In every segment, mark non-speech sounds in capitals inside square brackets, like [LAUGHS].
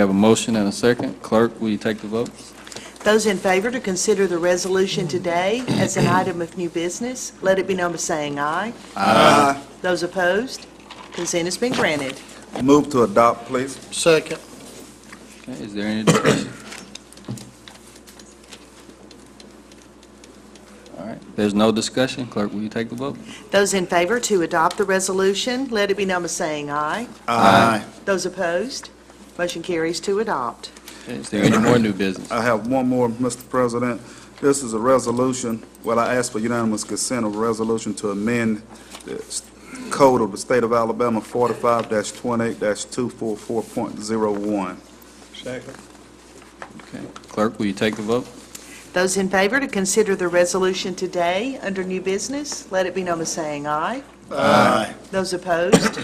We have a motion and a second. Clerk, will you take the vote? Those in favor to consider the resolution today as an item of new business, let it be known by saying aye. Aye. Those opposed, consent has been granted. Move to adopt, please. Second. Okay, is there any discussion? All right, if there's no discussion. Clerk, will you take the vote? Those in favor to adopt the resolution, let it be known by saying aye. Aye. Those opposed, motion carries to adopt. Okay, Is there any more new business? I have one more, Mr. President. This is a resolution, well, I ask for unanimous consent of a resolution to amend the s- Code of the State of Alabama 45-28-244.01. Second. Okay, Clerk, will you take the vote? Those in favor to consider the resolution today under new business, let it be known by saying aye. Aye. Those opposed,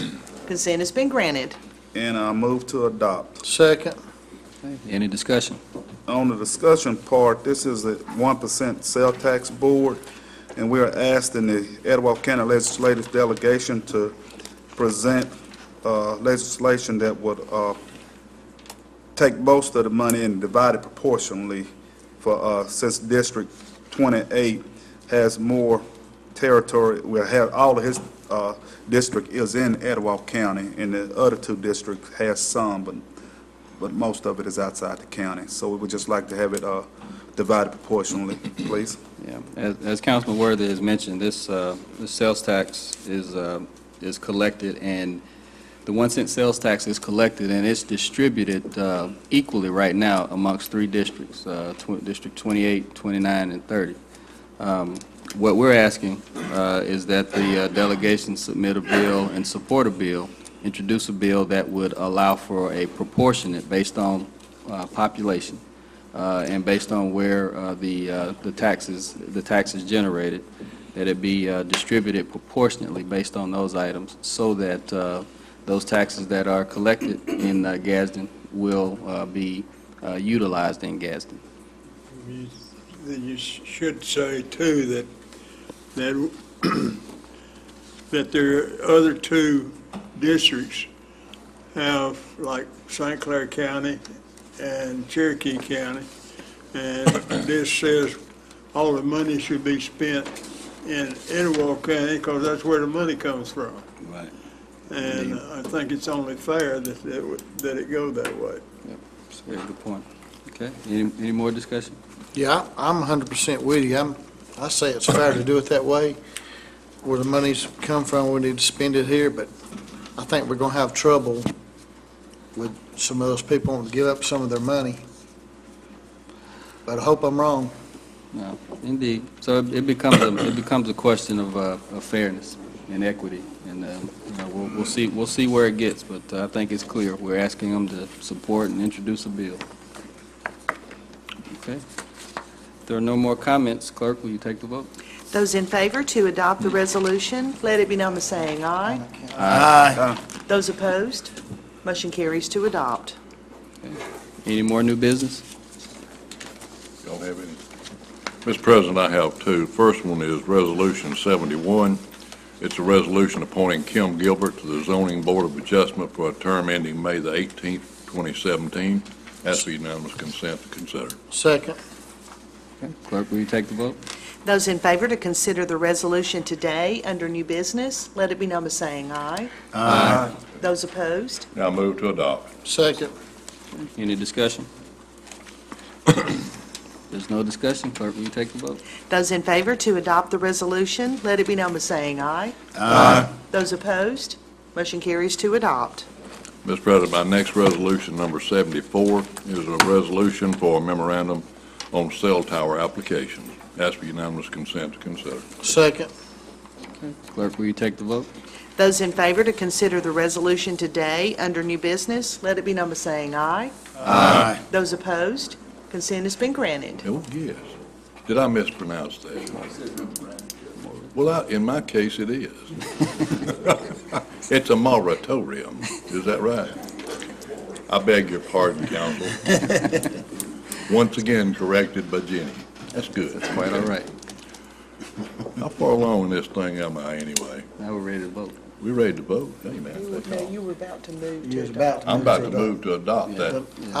consent has been granted. And I move to adopt. Second. Okay, Any discussion? On the discussion part, this is a 1% sale tax board, and we are asking the Etowah County Legislative Delegation to present uh, legislation that would uh, take most of the money and divide it proportionally for, uh, since District 28 has more territory, will have, all of his uh, district is in Etowah County, and the other two districts has some, but but most of it is outside the county. So we would just like to have it uh, divided proportionally, please. Yeah, as, as Councilman Worthy has mentioned, this, uh, this sales tax is, uh, is collected, and the one cent sales tax is collected, and it's distributed, uh, equally right now amongst three districts, uh, tw- District 28, 29, and 30. Um, what we're asking, uh, is that the uh, delegation submit a bill and support a bill, introduce a bill that would allow for a proportionate based on, uh, population uh, and based on where uh, the uh, the taxes, the tax is generated, that it be uh, distributed proportionately based on those items, so that uh, those taxes that are collected in uh, Gadsden will uh, be uh, utilized in Gadsden. You- You sh- should say too that, that, [CLEARS THROAT] that there are other two districts have, like St. Clair County and Cherokee County. And [COUGHS] this says all the money should be spent in Etowah County because that's where the money comes from. Right. And I think it's only fair that, that it- that it go that way. Very good point. Okay, any any more discussion? Yeah, I- I'm 100% with you. I'm, I say it's fair to do it that way. Where the money's come from, we need to spend it here, but I think we're going to have trouble with some of those people wanting to give up some of their money. But I hope I'm wrong. No, indeed. So it it becomes, a- it becomes a question of uh, of fairness and equity, and, uh, you know, we'll we'll see, we'll see where it gets, but uh, I think it's clear. We're asking them to support and introduce a bill. Okay. If there are no more comments, clerk, will you take the vote? Those in favor to adopt the resolution, let it be known by saying aye. Those opposed, motion carries to adopt. Any more new business? Don't have any. Mr. President, I have two. First one is Resolution 71. It's a resolution appointing Kim Gilbert to the Zoning Board of Adjustment for a term ending May the 18th, 2017. Ask for unanimous consent to consider. Second, Okay. Clerk, will you take the vote? Those in favor to consider the resolution today under new business, let it be known by saying aye. Aye. Those opposed, Now move to adopt. second, Any discussion? There's no discussion, clerk, will you take the vote? those in favor to adopt the resolution, let it be known by saying aye. Aye. Those opposed, motion carries to adopt. Mr. President, my next resolution, number 74, is a resolution for a memorandum on cell tower applications. Ask for unanimous consent to consider. second, Clerk, will you take the vote? Those in favor to consider the resolution today under new business, let it be known by saying aye. Aye. Those opposed, consent has been granted. Oh, yes. Did I mispronounce that? Well, I- in my case, it is. [LAUGHS] It's a moratorium, is that right? I beg your pardon, counsel. [LAUGHS] Once again corrected by Jenny. That's good. Quite all right. How far along in this thing am I anyway? Now we're ready to vote. We ready to vote? Hey, man. You were, no, you were about to move to You was about adopt. to I'm about to adopt. move to adopt that. But